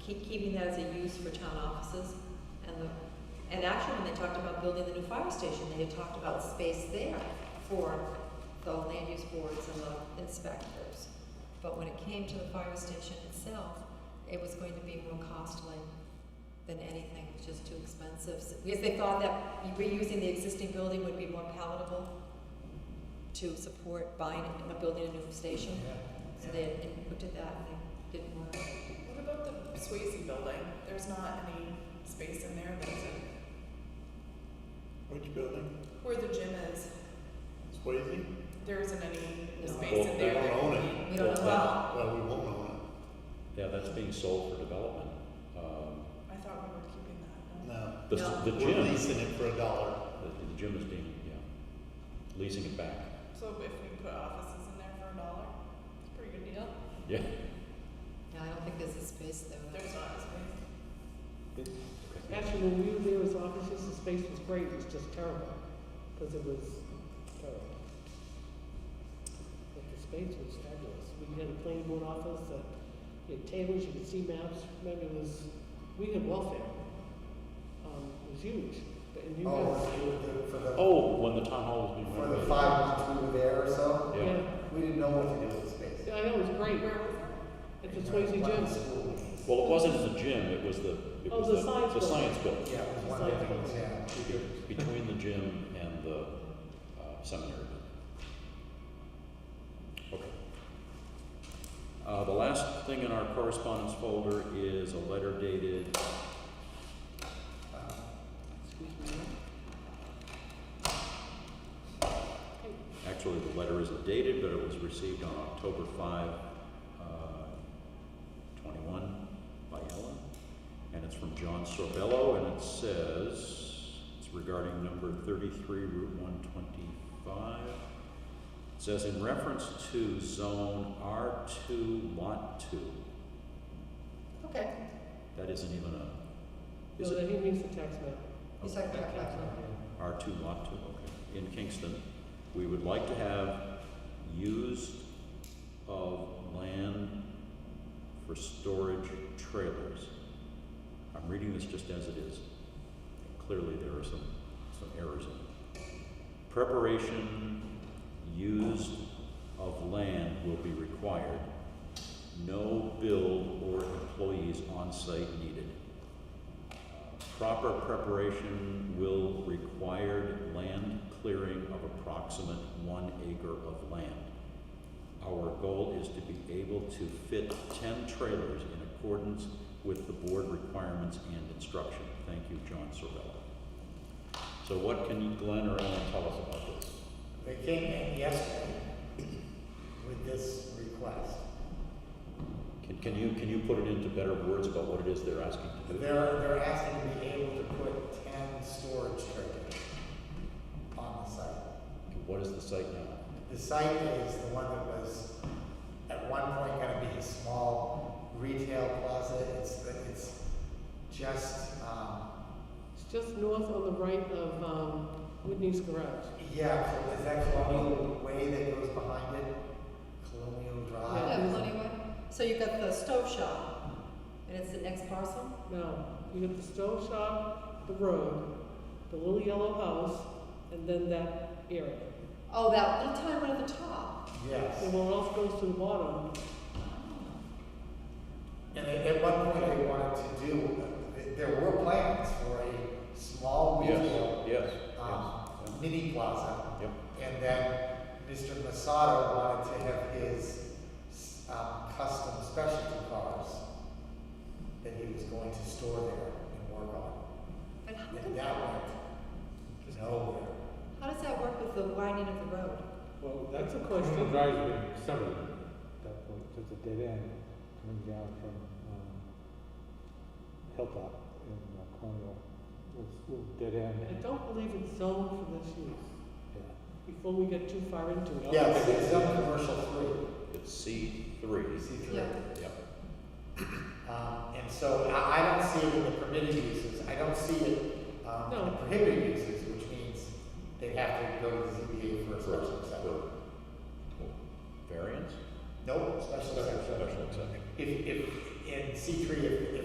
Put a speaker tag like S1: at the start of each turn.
S1: keep, keeping that as a use for town offices. And the, and actually, when they talked about building the new fire station, they had talked about space there for the land use boards and the inspectors. But when it came to the fire station itself, it was going to be more costly than anything, it was just too expensive. So- Because they thought that reusing the existing building would be more palatable to support buying a building, a new station. So they had looked at that and they didn't work.
S2: What about the Swayze building? There's not any space in there, that's it.
S3: Which building?
S2: Where the gym is,
S3: Swayze?
S2: there isn't any
S1: No.
S2: space in there.
S3: Well, they
S2: that
S3: don't own
S2: would be-
S1: We don't know
S2: Well,
S3: Well, we won't own
S4: Yeah, that's being sold for development. Um,
S2: I thought we were keeping that.
S3: it,
S2: no?
S3: no.
S4: The,
S1: No.
S4: the
S3: We're
S4: gym,
S3: leasing it for a dollar.
S4: the the gym is being, yeah, leasing it back.
S2: So if we put offices in there for a dollar, it's a pretty good deal.
S4: Yeah.
S1: Yeah, I don't think there's a space there.
S2: There's not a space.
S5: Actually, when we were there as officers, the space was great, it was just terrible, because it was terrible. But the space was fabulous. We uh, had a planning board office that, you had tables, you could see maps, maybe it was, we had welfare. Um, it was huge, but, and you
S6: Oh,
S5: guys,
S6: we were there for the,
S4: Oh, when the town hall was being
S6: for the
S4: renovated.
S6: five months we were there or so,
S4: Yeah,
S5: yeah,
S6: we didn't know what to do with the space.
S5: yeah, I know, it was great,
S2: Where was that?
S5: at the Swayze Gym.
S4: well, it wasn't the gym, it was the, it
S5: Oh,
S4: was
S5: the
S4: the,
S5: science
S4: the
S5: building.
S4: science building.
S6: Yeah, it was one of the things, yeah.
S4: Be- Between the gym and the uh, seminary building. Okay. Uh, the last thing in our correspondence folder is a letter dated
S5: Excuse me.
S4: Actually, the letter isn't dated, but it was received on October 5, uh, 21 by Ellen. And it's from John Sorbello, and it says, it's regarding number 33, Route 125. It says, in reference to zone R2, Lot 2,
S6: Okay.
S4: that isn't even a, is
S5: No,
S4: it
S5: that he means the tax map.
S1: He's talking about that one.
S4: R2, Lot 2, okay, in Kingston, we would like to have used of land for storage trailers. I'm reading this just as it is. Clearly, there are some, some errors in it. Preparation, used of land will be required. No build or employees on site needed. Proper preparation will require land clearing of approximate one acre of land. Our goal is to be able to fit ten trailers in accordance with the board requirements and instruction. Thank you, John Sorrell. So what can you, Glenn or Ellen tell us about this?
S6: They came in yesterday with this request.
S4: Can, can you, can you put it into better words about what it is they're asking to
S6: They're,
S4: do?
S6: they're asking to be able to put ten storage trailers on the site.
S4: What is the site now?
S6: The site is the one that was at one point gonna be a small retail plaza. It's, it's just, um,
S5: It's just north on the right of, um, Whitney's Garage.
S6: Yeah, so is that colonial way that goes behind it? Colonial
S1: Yeah,
S6: Drive?
S1: well, anyway, so you've got the stove shop, and it's the next parcel?
S5: Now, you have the stove shop, the road, the little yellow house, and then that area.
S1: Oh, that little tiny one at the top. Oh.
S6: Yes.
S5: And what else goes to the bottom?
S6: And at, at one point, they wanted to do, there were plans for a small
S4: Yes,
S6: retail,
S4: yes, Ah.
S6: um,
S4: yes.
S6: mini plaza.
S4: Yep.
S6: And then Mr. Masato wanted to have his, um, custom specialty cars that he was going to store there and work on.
S1: But how,
S6: And
S1: come-
S6: that went nowhere.
S1: how does that work with the widening of the road?
S7: Well,
S5: That's
S7: that's
S5: a
S7: a
S5: question.
S7: question. Drive's been severed at that point, just a dead end coming down from um, Hilltop in uh, Cornwall. It's a little dead end.
S5: I don't believe it's zoned for this use,
S7: Yeah.
S5: before we get too far into it.
S6: Yes, it's on commercial three.
S4: It's C three.
S1: Yeah.
S4: Yep.
S6: Um, and so I, I don't see it in the permitted uses, I don't see it, um, in the
S5: No.
S6: prohibited uses, which means they have to go to the ZBA for a special exception.
S4: For- for Variance?
S6: Nope, special exception.
S4: Special exception.
S6: If, if, in C three, if, if